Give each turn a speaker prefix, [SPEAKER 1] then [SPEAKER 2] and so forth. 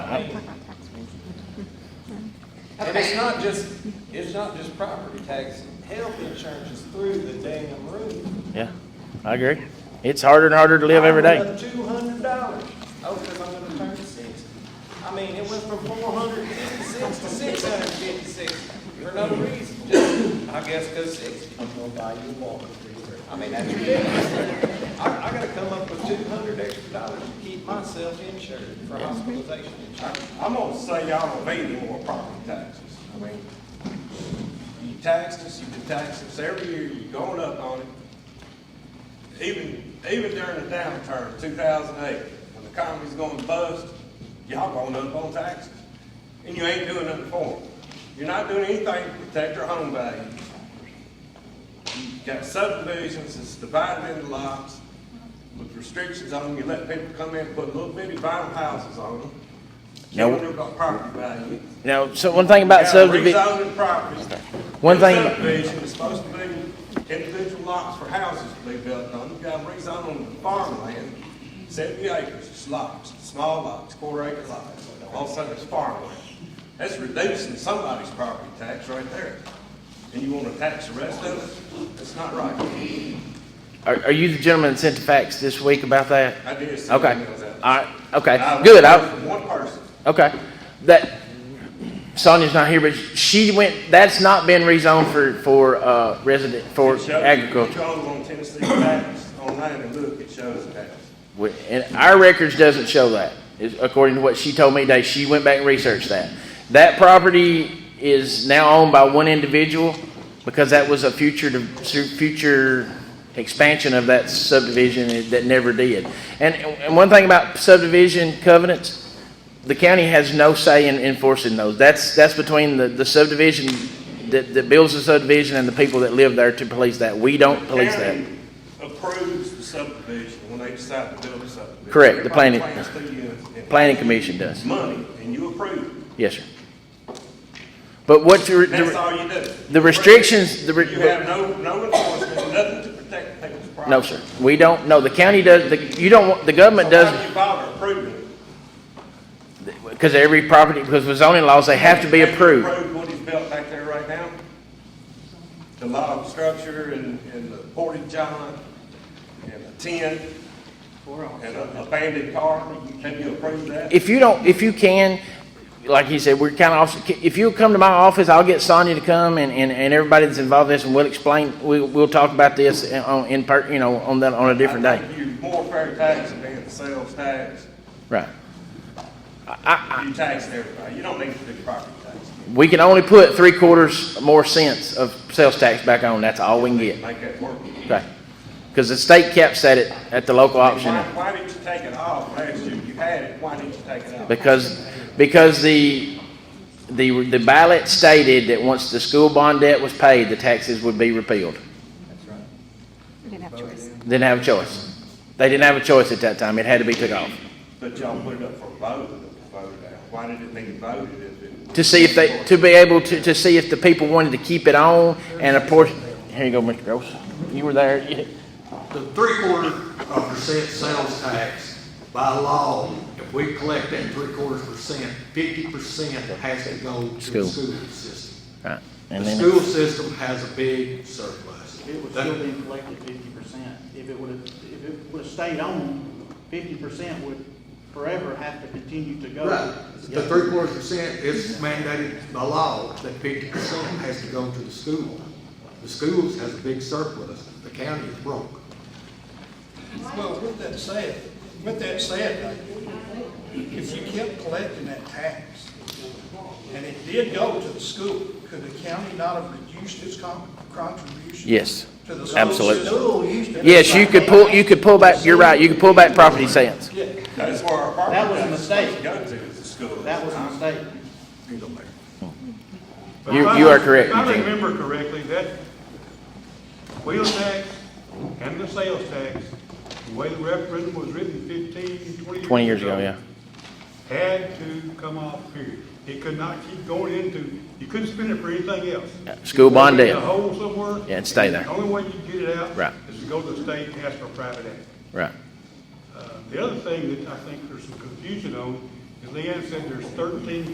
[SPEAKER 1] And it's not just, it's not just property tax, health insurance is through the damn roof.
[SPEAKER 2] Yeah, I agree. It's harder and harder to live every day.
[SPEAKER 1] Two hundred dollars, oh, because I'm gonna turn sixty. I mean, it went from four hundred fifty-six to six hundred fifty-six for no reason, just, I guess, because sixty. I'm gonna buy you a walker. I mean, that's ridiculous. I, I gotta come up with two hundred extra dollars to keep myself insured for hospitalization insurance.
[SPEAKER 3] I'm gonna say y'all don't need any more property taxes. I mean, you taxed us, you've been taxing us every year, you're going up on it. Even, even during the downturn, two thousand eight, when the economy's going bust, y'all going up on taxes. And you ain't doing nothing for them. You're not doing anything to protect our home values. You've got subdivisions that's divided into lots with restrictions on them. You let people come in and put little bitty vinyl houses on them.
[SPEAKER 2] Now-
[SPEAKER 3] Killing them about property value.
[SPEAKER 2] You know, so one thing about
[SPEAKER 3] You
[SPEAKER 2] subdivision,
[SPEAKER 3] got rezoning properties.
[SPEAKER 2] One
[SPEAKER 3] Your
[SPEAKER 2] thing-
[SPEAKER 3] Subdivision is supposed to be individual lots for houses to be built on. You got rezoning farmland, seventy acres, it's lots, small lots, quarter acre lots. All of a sudden it's farmland. That's reducing somebody's property tax right there. And you wanna tax the rest of it? That's not right.
[SPEAKER 2] are, are you the gentleman that sent the facts this week about that?
[SPEAKER 3] I did see
[SPEAKER 2] Okay,
[SPEAKER 3] emails out.
[SPEAKER 2] all right, okay,
[SPEAKER 3] I-
[SPEAKER 2] good, I,
[SPEAKER 3] from One person.
[SPEAKER 2] okay. That, Sonia's not here, but she went, that's not been rezoned for, for, uh, resident, for
[SPEAKER 3] It shows-
[SPEAKER 2] agriculture.
[SPEAKER 3] You go on Tennessee Facts online and look, it shows it has.
[SPEAKER 2] We- And our records doesn't show that, is according to what she told me today. She went back and researched that. That property is now owned by one individual because that was a future, de- su- future expansion of that subdivision that never did. And, and one thing about subdivision covenants, the county has no say in enforcing those. That's, that's between the, the subdivision that, that builds the subdivision and the people that live there to police that. We don't police that.
[SPEAKER 3] County Approves the subdivision when they decide to build a subdivision.
[SPEAKER 2] Correct, the
[SPEAKER 3] Everybody
[SPEAKER 2] planning-
[SPEAKER 3] plans to you and-
[SPEAKER 2] Planning commission does.
[SPEAKER 3] Money, and you approve,
[SPEAKER 2] Yes, sir. But what your,
[SPEAKER 3] that's
[SPEAKER 2] the
[SPEAKER 3] all you do.
[SPEAKER 2] the restrictions, the,
[SPEAKER 3] You have
[SPEAKER 2] re-
[SPEAKER 3] no, no enforcement, nothing to protect people's property.
[SPEAKER 2] no, sir, we don't, no, the county does, the, you don't, want the government
[SPEAKER 3] So why do
[SPEAKER 2] does,
[SPEAKER 3] you bother approving it?
[SPEAKER 2] because every property, because with zoning laws, they have to be
[SPEAKER 3] Have you
[SPEAKER 2] approved.
[SPEAKER 3] approved what he's built back there right now? The log structure and, and the portage john, and a tent, and a abandoned car, have you approved that?
[SPEAKER 2] If you don't, if you can, like he said, we're kind of, if you'll come to my office, I'll get Sonia to come and, and, and everybody that's involved in this, and we'll explain, we, we'll talk about this in- on, in per, you know, on that, on a different
[SPEAKER 3] I
[SPEAKER 2] day.
[SPEAKER 3] think You're more fair tax than the sales tax.
[SPEAKER 2] Right.
[SPEAKER 3] You tax everybody, you don't need to do property tax,
[SPEAKER 2] We can only put three quarters more cents of sales tax back on, that's all we can get.
[SPEAKER 3] make that work.
[SPEAKER 2] Okay. Because the state caps at it at the local option.
[SPEAKER 3] Why, why didn't you take it off last year, you had it, why didn't you take it off?
[SPEAKER 2] Because, because the, the, the ballot stated that once the school bond debt was paid, the taxes would be repealed.
[SPEAKER 4] didn't have choice.
[SPEAKER 2] Didn't have a choice. They didn't have a choice at that time. It had to be took off.
[SPEAKER 3] But y'all put it up for vote, and it was voted out, why did it need voted if it?
[SPEAKER 2] To see if they, to be able to, to see if the people wanted to keep it on and a portion, here you go, Mr. Gross. You were there.
[SPEAKER 5] The three-quarter of percent sales tax, by law, if we collect that three-quarters percent, fifty percent has to go to
[SPEAKER 2] School.
[SPEAKER 5] the school system.
[SPEAKER 2] Right.
[SPEAKER 5] The
[SPEAKER 2] And then,
[SPEAKER 5] school system has a big surplus.
[SPEAKER 6] It would
[SPEAKER 5] That-
[SPEAKER 6] still be collected fifty percent. If it would have, if it would have stayed on, fifty percent would forever have to continue to go.
[SPEAKER 5] Right, the
[SPEAKER 6] Yeah.
[SPEAKER 5] three-quarters percent is mandated by law that fifty percent has to go to the school. The schools has a big surplus, the county is broke.
[SPEAKER 7] Well, with that said, with that said, if you kept collecting that tax, and it did go to the school, could the county not have reduced its con- contribution?
[SPEAKER 2] yes.
[SPEAKER 7] To the
[SPEAKER 2] absolutely.
[SPEAKER 7] school system?
[SPEAKER 2] Yes, you could pull, you could pull back, you're right, you could pull back property sales.
[SPEAKER 3] That's where our property
[SPEAKER 6] That was a
[SPEAKER 3] tax is supposed to
[SPEAKER 6] mistake.
[SPEAKER 3] go to, is the school.
[SPEAKER 6] That was a mistake.
[SPEAKER 2] You,
[SPEAKER 8] If I-
[SPEAKER 2] you are correct.
[SPEAKER 8] If I
[SPEAKER 2] Eugene.
[SPEAKER 8] remember correctly, that wheel tax and the sales tax, the way the referendum was written 15, 20 years ago.
[SPEAKER 2] 20 years ago, yeah.
[SPEAKER 8] Had to come off, period. It could not keep going into, you couldn't spend it for anything else.
[SPEAKER 2] Yeah, Uh, school bond
[SPEAKER 8] You put it in
[SPEAKER 2] debt.
[SPEAKER 8] a hole somewhere.
[SPEAKER 2] Yeah, and stay there.
[SPEAKER 8] The only way you get it out.
[SPEAKER 2] Right.
[SPEAKER 8] Is to go to the state and ask for a private act.
[SPEAKER 2] Right.
[SPEAKER 8] Uh, The other thing that I think there's some confusion on And Leanne said there's thirteen